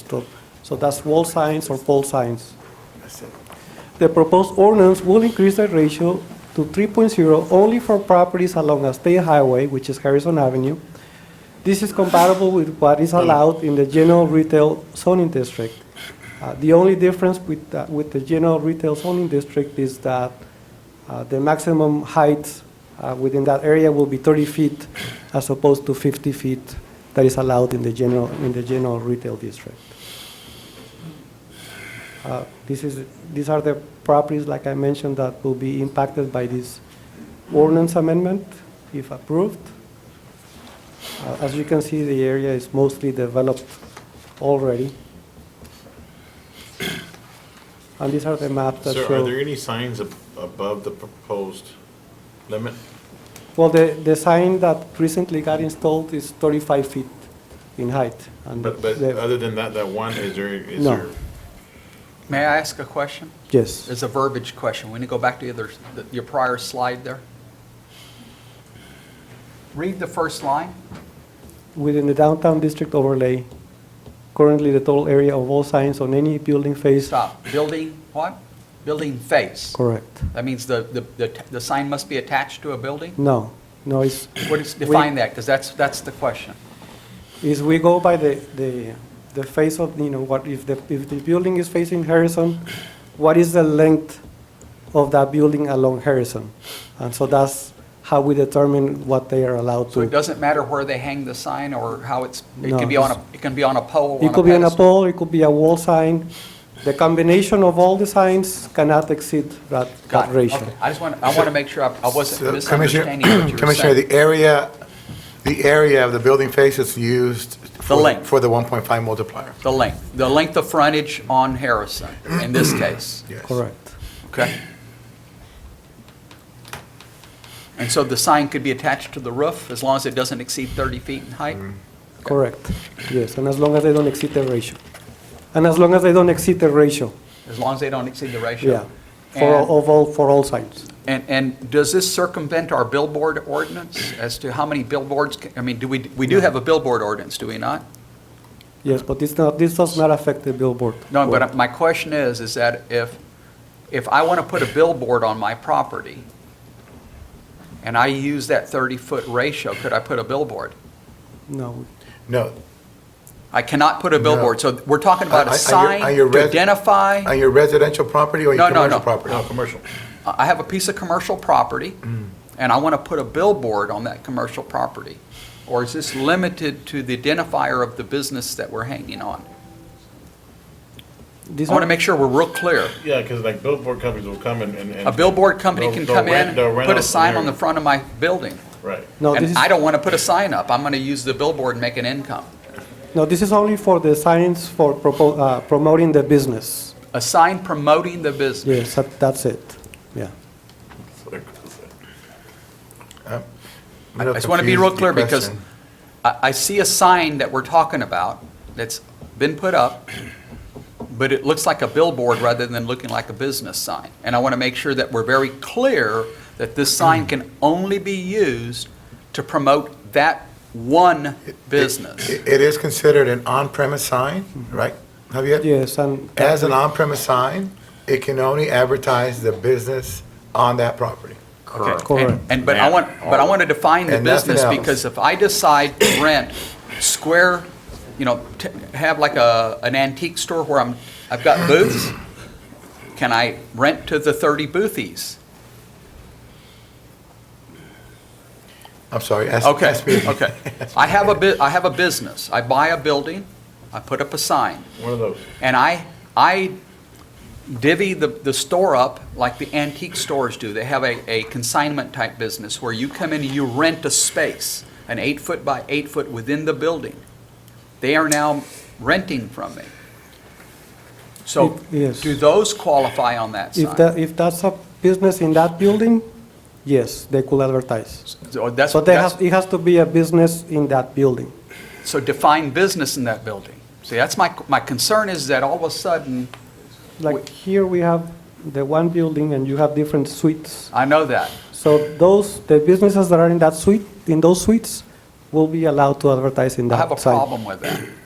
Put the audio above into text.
desktop. So that's wall signs or pole signs. The proposed ordinance will increase the ratio to 3.0 only for properties along a state highway, which is Harrison Avenue. This is compatible with what is allowed in the general retail zoning district. Uh, The only difference with, uh, with the general retail zoning district is that uh, the maximum height uh, within that area will be 30 feet as opposed to 50 feet that is allowed in the general, in the general retail district. Uh, This is, these are the properties, like I mentioned, that will be impacted by this ordinance amendment if approved. Uh, As you can see, the area is mostly developed already. And these are the maps that Sir, show. are there any signs ab- above the proposed limit? Well, the, the sign that recently got installed is 35 feet in height. and But, but the- uh, other than that, that one, is there, is No. there? May I ask a question? Yes, It's a verbiage question. We need to go back to the other, the- your prior slide there. Read the first line. within the downtown district overlay, currently the total area of all signs on any building face. Stop. Building, what? Building face. Correct. That means the, the, the t- the sign must be attached to a building? No, no, it's, What is, define that, because that's, that's the question. is we go by the, the, the face of, you know, what, if the, if the building is facing Harrison, what is the length of that building along Harrison? And so that's how we determine what they are allowed to. So it doesn't matter where they hang the sign or how it's, it No, can be on a, it's- it can be on a pole, on a It could be an pedestal. pole, it could be a wall sign. The combination of all the signs cannot exceed that, Got that it. ratio. Okay. I just want, I want to make sure I I wasn't So, Commissioner- misunderstanding what you were Commissioner, saying. the area, the area of the building face is used for- length. for the 1.5 multiplier. The length, the length of frontage on Harrison, in this case. Yes. Correct. Okay. And so the sign could be attached to the roof as long as it doesn't exceed 30 feet in height? Correct. Yes, and as long as they don't exceed the ratio. And as long as they don't exceed the ratio, As long as they don't exceed the yeah, ratio? for And- all, of all, for all signs. And, and does this circumvent our billboard ordinance as to how many billboards, ca- I mean, do we, we do have a billboard ordinance, do we not? Yes, but it's not, this does not affect the billboard. No, but uh, my question is, is that if, if I want to put a billboard on my property and I use that 30-foot ratio, could I put a billboard? No, No, I cannot put a billboard, so we're talking about On- on a your- sign on your to res- identify, on your residential property or No, your no, commercial no. property? No, commercial. I have a piece of commercial property, and I want to put a billboard on that commercial property. Or is this limited to the identifier of the business that we're hanging on? these I want to are, make sure we're real clear. Yeah, because like billboard companies will come and, and. and- A billboard company They'll- can they'll come rent- in, they'll rent put a out sign their- on the front of my building, Right. no, this and is, I don't want to put a sign up. I'm going to use the billboard and make an income. no, this is only for the signs for propo- uh, promoting the business. A sign promoting the business. Yes, that- that's it, yeah. I'm a I little just want to be real confused clear with the because question. I, I see a sign that we're talking about that's been put up, but it looks like a billboard rather than looking like a business sign. And I want to make sure that we're very clear that this sign can only be used to promote that one business. It it is considered an on-premise sign, right, Javier? Yes, and. As an on-premise sign, it can only advertise the business on that property. Correct. Correct. And- And, but I want, but I want to define the And nothing business, else. because if I decide to rent square, you know, t- have like a, an antique store where I'm, I've got booths, can I rent to the 30 boothies? I'm sorry. ask- Okay, ask me- okay. I have a bit, I have a business, I buy a building, I put up a sign, One of those. and I, I divvy the, the store up like the antique stores do. They have a, a consignment type business where you come in and you rent a space, an eight foot by eight foot within the building. They are now renting from me. So If- yes. do those qualify on that If sign? that, if that's a business in that building, yes, they could advertise. So that's, So they that's- have, it has to be a business in that building. So define business in that building. See, that's my, my concern is that all of a sudden, Like here we have the one building and you have different suites. I know that. So those, the businesses that are in that suite, in those suites, will be allowed to advertise in I have a that site. problem with that.